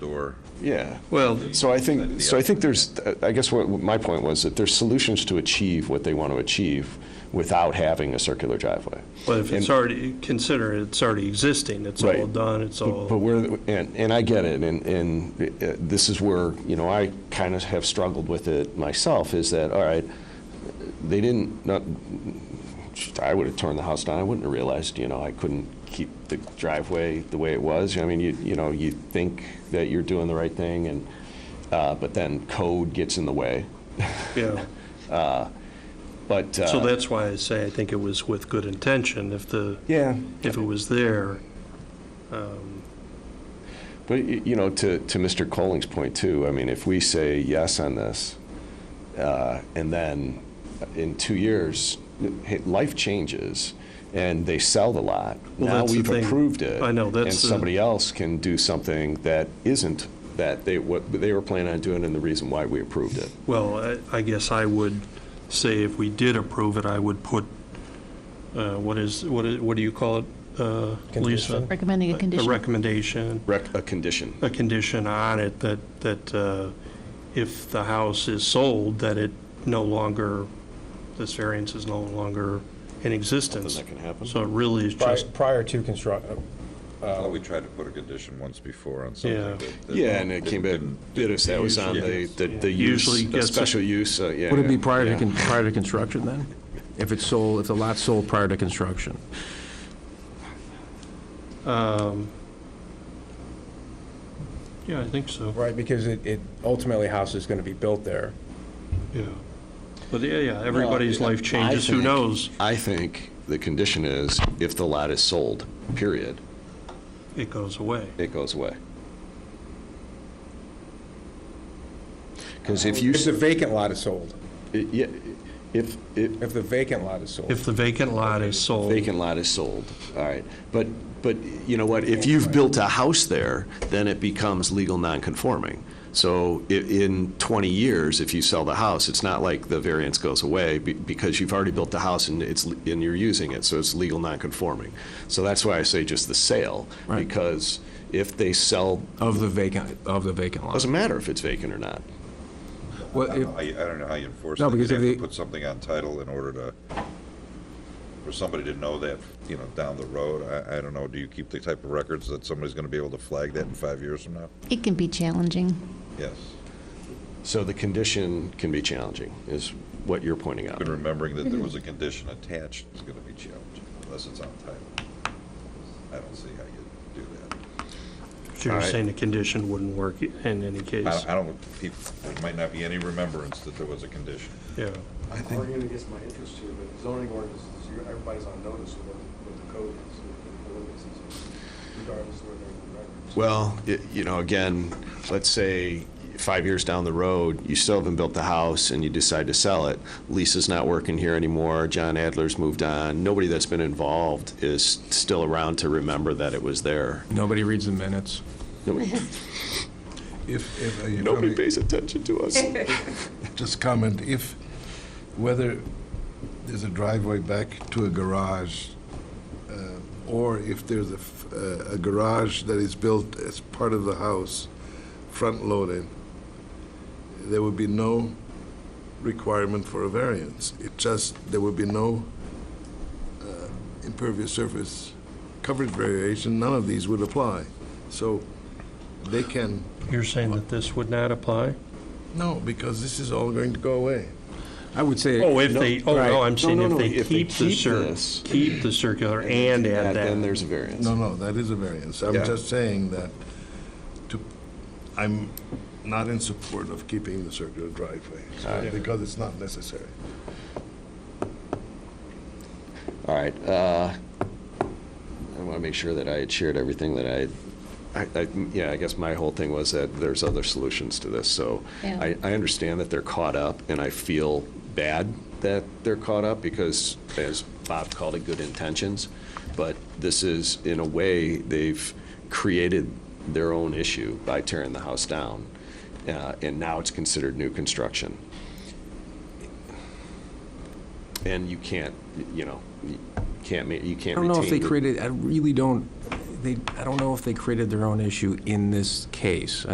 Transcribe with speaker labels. Speaker 1: door.
Speaker 2: Yeah.
Speaker 3: Well,
Speaker 2: So I think, so I think there's, I guess what my point was that there's solutions to achieve what they want to achieve without having a circular driveway.
Speaker 3: but if it's already, consider it's already existing, it's all
Speaker 2: Right.
Speaker 3: done, it's all.
Speaker 2: But we're, and, and I get it, and, and uh, this is where, you know, I kind of have struggled with it myself, is that, all right, they didn't, not, I would have torn the house down, I wouldn't have realized, you know, I couldn't keep the driveway the way it was. I mean, you, you know, you think that you're doing the right thing, and, uh, but then code gets in the way,
Speaker 3: Yeah,
Speaker 2: but. uh,
Speaker 3: so that's why I say I think it was with good intention, if the,
Speaker 2: Yeah,
Speaker 3: if it was there.
Speaker 2: but, y- you know, to, to Mr. Colling's point too, I mean, if we say yes on this, uh, and then in two years, hey, life changes, and they sell the lot.
Speaker 3: Well,
Speaker 2: Now
Speaker 3: that's the
Speaker 2: we've
Speaker 3: thing.
Speaker 2: approved it.
Speaker 3: I know, that's the-
Speaker 2: And somebody else can do something that isn't, that they, what they were planning on doing and the reason why we approved it.
Speaker 3: Well, I- I guess I would say if we did approve it, I would put, uh, what is, what is- what do you call it, uh, Lisa?
Speaker 4: Recommending a
Speaker 3: A
Speaker 4: condition.
Speaker 3: recommendation,
Speaker 2: Rec, a condition.
Speaker 3: a condition on it that, that uh, if the house is sold, that it no longer, this variance is no longer in existence.
Speaker 2: Something that can happen.
Speaker 3: So it really is just,
Speaker 5: Prior to construct,
Speaker 1: I thought we
Speaker 5: Um,
Speaker 1: tried to put a condition once before on
Speaker 3: Yeah.
Speaker 1: something that. that
Speaker 2: Yeah, and it came back,
Speaker 1: didn't-
Speaker 2: bit us, that was on the, the the use,
Speaker 3: Usually
Speaker 2: the
Speaker 3: gets it.
Speaker 2: special use, uh, yeah.
Speaker 5: Would it be
Speaker 2: yeah,
Speaker 5: prior to,
Speaker 2: yeah.
Speaker 5: con- prior to construction then? If it's sold, if the lot's sold prior to construction?
Speaker 3: yeah, I think so,
Speaker 6: Right, because it, it ultimately house is going to be built there.
Speaker 3: yeah. But yeah, yeah, everybody's life changes, who
Speaker 2: think-
Speaker 3: knows?
Speaker 2: I think the condition is if the lot is sold, period,
Speaker 3: It goes away.
Speaker 2: it goes away. Because if you,
Speaker 6: If
Speaker 2: s-
Speaker 6: the vacant lot is sold,
Speaker 2: i- yeah, if, if
Speaker 6: if the vacant lot is sold.
Speaker 3: If the vacant lot is sold.
Speaker 2: vacant lot is sold, all right, but, but you know what, if you've built a house there, then it becomes legal nonconforming. So i- in 20 years, if you sell the house, it's not like the variance goes away be- because you've already built the house and it's, and you're using it, so it's legal nonconforming. So that's why I say just the sale,
Speaker 5: Right.
Speaker 2: because if they sell
Speaker 5: Of the vacant, of the vacant lot.
Speaker 2: Doesn't matter if it's vacant or not.
Speaker 5: Well,
Speaker 1: I
Speaker 5: if-
Speaker 1: don't know how you- I don't know how you enforce
Speaker 5: No,
Speaker 1: that. You'd
Speaker 5: because if
Speaker 1: have to
Speaker 5: the-
Speaker 1: put something on title in order to, for somebody to know that, you know, down the road. I, I don't know, do you keep the type of records that somebody's going to be able to flag that in five years from now?
Speaker 4: It can be challenging.
Speaker 1: Yes.
Speaker 2: So the condition can be challenging, is what you're pointing out.
Speaker 1: But remembering that there was
Speaker 2: Mm-hmm.
Speaker 1: a condition attached is going to be challenging, unless it's on title. I don't see how you do that.
Speaker 3: So you're saying the condition wouldn't work in any case?
Speaker 1: I I don't, people, there might not be any remembrance that there was a condition.
Speaker 3: Yeah,
Speaker 7: I think. Arguing against my interest here, but zoning ordinance, is- you're- everybody's on notice of what, what the code is, what the ordinance is, regardless of where they're in the records.
Speaker 2: Well, i- you know, again, let's say five years down the road, you still haven't built the house and you decide to sell it. Lisa's not working here anymore. John Adler's moved on. Nobody that's been involved is still around to remember that it was there.
Speaker 5: nobody reads the minutes.
Speaker 8: If, if, uh, you
Speaker 2: Nobody
Speaker 8: comment-
Speaker 2: pays attention to us.
Speaker 8: just comment, if, whether there's a driveway back to a garage, uh, or if there's a, f- uh, a garage that is built as part of the house, front-loaded, there would be no requirement for a variance. It just, there would be no uh, impervious surface coverage variation, none of these would apply. So they can,
Speaker 3: you're saying that this would not apply?
Speaker 8: no, because this is all going to go away.
Speaker 5: I would say.
Speaker 3: Oh, if they, oh, no,
Speaker 5: Right.
Speaker 3: I'm saying
Speaker 2: no,
Speaker 3: if
Speaker 2: no,
Speaker 3: they
Speaker 2: if they
Speaker 3: keep the
Speaker 2: keep
Speaker 3: cir,
Speaker 2: this-
Speaker 3: keep the circular and add
Speaker 2: Then
Speaker 3: that.
Speaker 2: there's a variance.
Speaker 8: No, no, that is a variance. I'm
Speaker 2: Yeah.
Speaker 8: just saying that to, I'm not in support of keeping the circular driveway because it's not necessary.
Speaker 2: All right. uh, I want to make sure that I had shared everything that I, I- I- yeah, I guess my whole thing was that there's other solutions to this. So
Speaker 4: Yeah.
Speaker 2: I, I understand that they're caught up, and I feel bad that they're caught up because, as Bob called it, good intentions. But this is, in a way, they've created their own issue by tearing the house down, uh, and now it's considered new construction. And you can't, you know, you can't, ma- you
Speaker 5: I
Speaker 2: can't
Speaker 5: don't know if they
Speaker 2: retain the-
Speaker 5: created, I really don't, they, I don't know if they created their own issue in this case.